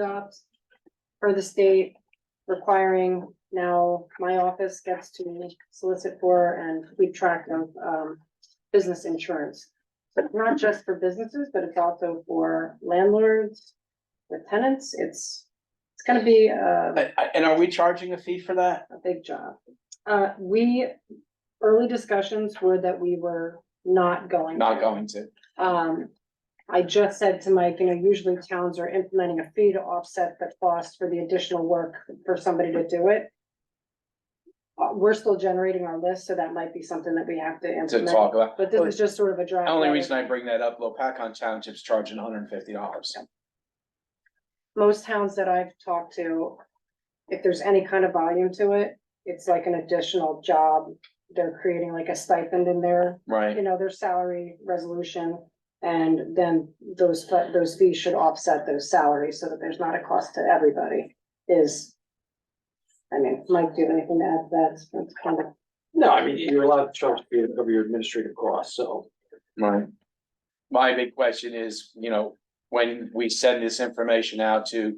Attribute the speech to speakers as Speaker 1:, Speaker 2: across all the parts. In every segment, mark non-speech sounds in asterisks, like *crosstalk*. Speaker 1: jobs for the state requiring now my office gets to solicit for and keep track of um business insurance. So it's not just for businesses, but it's also for landlords, with tenants. It's, it's gonna be a
Speaker 2: I- I- And are we charging a fee for that?
Speaker 1: a big job. Uh, we, early discussions were that we were not going.
Speaker 2: Not
Speaker 1: to.
Speaker 2: going to.
Speaker 1: Um, I just said to Mike, you know, usually towns are implementing a fee to offset the cost for the additional work for somebody to do it. Uh, we're still generating our list, so that might be something that we have to
Speaker 2: to
Speaker 1: implement,
Speaker 2: talk about.
Speaker 1: but this is just sort of a
Speaker 2: The
Speaker 1: draft.
Speaker 2: Only
Speaker 1: letter.
Speaker 2: reason I bring that up, Lopakon Township's charging hundred and fifty dollars.
Speaker 1: Most towns that I've talked to, if there's any kind of volume to it, it's like an additional job. They're creating like a stipend in there. you
Speaker 2: Right,
Speaker 1: know, their salary resolution. And then those, fe- those fees should offset those salaries so that there's not a cost to everybody is. I mean, Mike, do you have anything to add to that? It's kind of-
Speaker 3: No, I mean, you're allowed to charge for your- of your administrative costs, so.
Speaker 2: right. My big question is, you know, when we send this information out to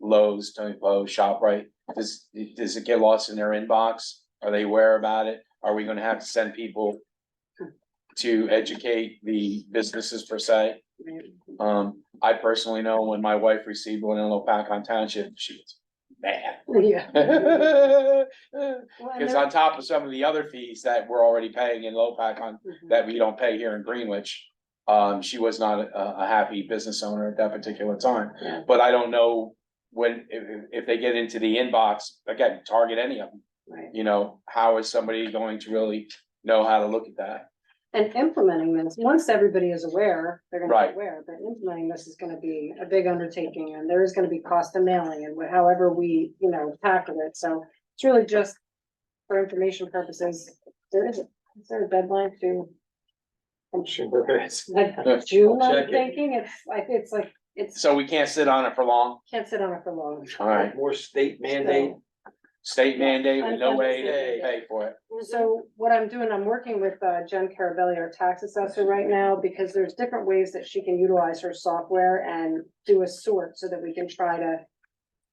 Speaker 2: Lowe's, Tony Lowe's, ShopRite, does, does it get lost in their inbox? Are they aware about it? Are we gonna have to send people to educate the businesses per se? Um, I personally know when my wife received one in Lopakon Township, she was mad. *laughs*
Speaker 1: Yeah.
Speaker 2: Cause
Speaker 1: Well, and
Speaker 2: on top of some of the other fees that we're already paying in Lopakon,
Speaker 1: there-
Speaker 2: that we don't pay here in Greenwich. Um, she was not a, a happy business owner at that particular time,
Speaker 1: Yeah.
Speaker 2: but I don't know when, if, if- if they get into the inbox, again, target any of them.
Speaker 1: Right.
Speaker 2: You know, how is somebody going to really know how to look at that?
Speaker 1: And implementing this, once everybody is aware, they're gonna be
Speaker 2: Right.
Speaker 1: aware, but implementing this is gonna be a big undertaking and there is gonna be cost of mailing and wha- however we, you know, tackle it. So it's really just for information purposes. There is, is there a deadline to?
Speaker 3: I'm sure there is.
Speaker 1: Like June,
Speaker 3: I'll
Speaker 1: I'm
Speaker 3: check it.
Speaker 1: thinking, it's like, it's like, it's,
Speaker 2: So we can't sit on it for long,
Speaker 1: can't sit on it for long.
Speaker 2: alright,
Speaker 3: More state mandate.
Speaker 2: state mandate with no way to
Speaker 1: Yeah.
Speaker 2: pay for it.
Speaker 1: So what I'm doing, I'm working with uh, Jen Carabelli, our tax assessor right now, because there's different ways that she can utilize her software and do a sort so that we can try to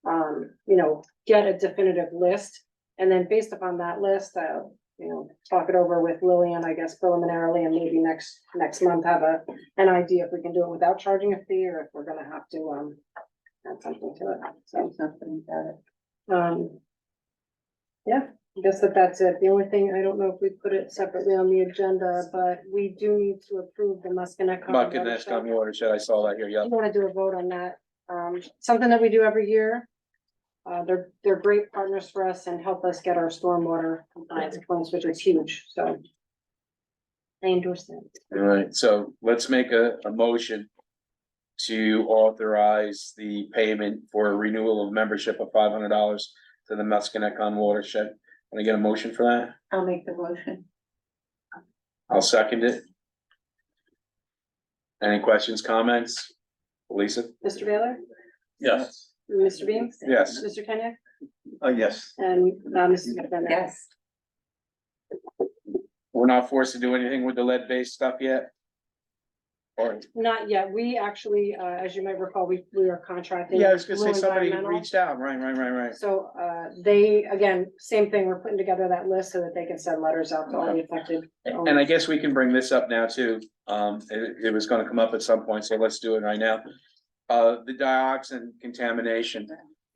Speaker 1: um, you know, get a definitive list. And then based upon that list, I'll, you know, talk it over with Lillian, I guess preliminarily, and maybe next, next month have a, an idea if we can do it without charging a fee or if we're gonna have to, um, add something to it, so. Something it. Um, yeah, I guess that that's it. The only thing, I don't know if we put it separately on the agenda, but we do need to approve the Muskinec. Common
Speaker 2: Muckin
Speaker 1: Watershed.
Speaker 2: Nash County watershed, I saw that here, yeah.
Speaker 1: I wanna do a vote on that, um, something that we do every year. Uh, they're, they're great partners for us and help us get our stormwater compliance points, which is huge, so. I endorse that.
Speaker 2: All right, so let's make a, a motion to authorize the payment for renewal of membership of five hundred dollars to the Muskinecon watershed. Can I get a motion for that?
Speaker 4: I'll make the motion.
Speaker 2: I'll second it. Any questions, comments? Lisa?
Speaker 1: Mr. Baylor?
Speaker 2: Yes.
Speaker 1: Mr. Beams?
Speaker 2: Yes.
Speaker 1: Mr. Kenya?
Speaker 2: Uh, yes.
Speaker 1: And, uh, Mrs. McDermott?
Speaker 4: Yes,
Speaker 2: We're not forced to do anything with the lead-based stuff yet? Or,
Speaker 1: Not yet. We actually, uh, as you might recall, we, we are contracting.
Speaker 2: yeah, I was gonna say
Speaker 1: Blue
Speaker 2: somebody
Speaker 1: Environmental.
Speaker 2: reached out, right, right, right, right.
Speaker 1: So, uh, they, again, same thing, we're putting together that list so that they can send letters out to all the affected
Speaker 2: And I guess we can bring this up now too. Um, it, it was gonna come up at some point, so let's do it right now. Uh, the dioxin contamination,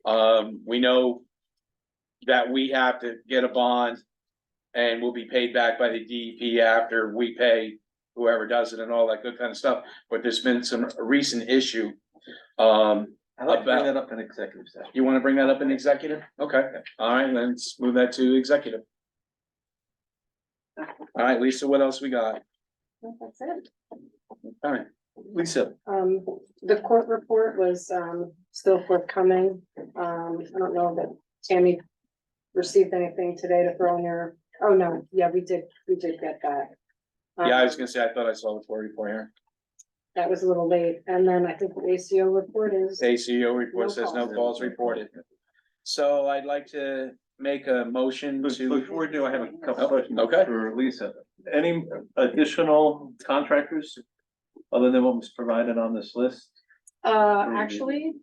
Speaker 2: um, we know that we have to get a bond and we'll be paid back by the DEP after we pay whoever does it and all that good kind of stuff. But there's been some recent issue. Um,
Speaker 3: I'd
Speaker 2: like to bring that
Speaker 3: up in executive session.
Speaker 2: you wanna bring that up in executive? Okay, all right, let's move that to executive. All right, Lisa, what else we got?
Speaker 1: That's it.
Speaker 2: All right,
Speaker 3: Lisa.
Speaker 1: Um, the court report was, um, still forthcoming. Um, I don't know that Tammy received anything today to throw in your, oh, no, yeah, we did, we did get that.
Speaker 2: yeah, I was
Speaker 1: Um,
Speaker 2: gonna say, I thought I saw the four report here.
Speaker 1: That was a little late. And then I think the ACO report is,
Speaker 2: ACO
Speaker 1: No
Speaker 2: report says no
Speaker 1: calls.
Speaker 2: calls reported. So I'd like to make a motion to,
Speaker 5: Before we do, I have a couple
Speaker 2: Oh,
Speaker 5: questions
Speaker 2: okay.
Speaker 5: for Lisa. Any additional contractors other than what was provided on this list?
Speaker 2: Mm-hmm.
Speaker 1: uh, actually,